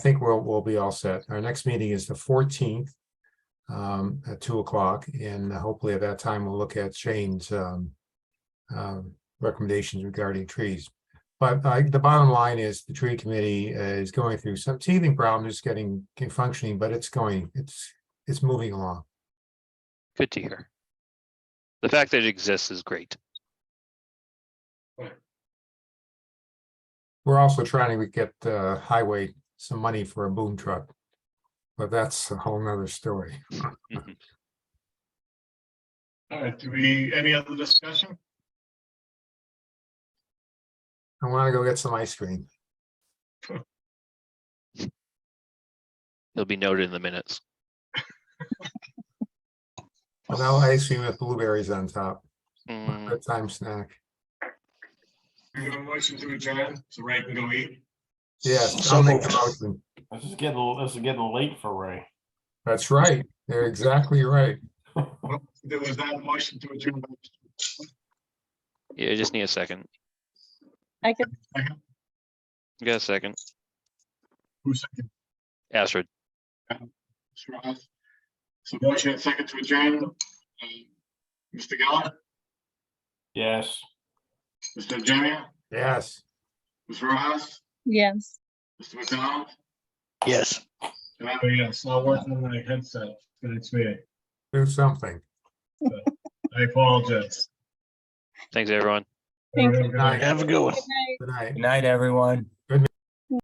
think we'll, we'll be all set. Our next meeting is the fourteenth um, at two o'clock, and hopefully at that time we'll look at Shane's um, um, recommendations regarding trees. But uh, the bottom line is the tree committee uh, is going through some teething problems, getting, getting functioning, but it's going, it's, it's moving along. Good to hear. The fact that it exists is great. We're also trying to get uh, highway some money for a boom truck. But that's a whole nother story. All right, do we, any other discussion? I want to go get some ice cream. It'll be noted in the minutes. Vanilla ice cream with blueberries on top. Mm, Bedtime snack. We have a motion to adjourn, so Ray can go eat. Yes, So I'll make the moved. motion. This is getting, a- this is getting late for Ray. That's right. They're exactly right. There was not a motion to adjourn. Yeah, I just need a second. I could, You got a second? Who seconded? Astrid, Mr. Roth? So motion and second to adjourn. Um, Mr. Geller, Yes. Mr. Jimmy, Yes. Mr. Roth, yes. Mr. McDonald, Yes. and I'm a yes. I'll work on my headset for next meeting. Do something. I apologize. thanks, everyone. Thank you. Good night. Have a good one. Good night. Good night. Good night, everyone.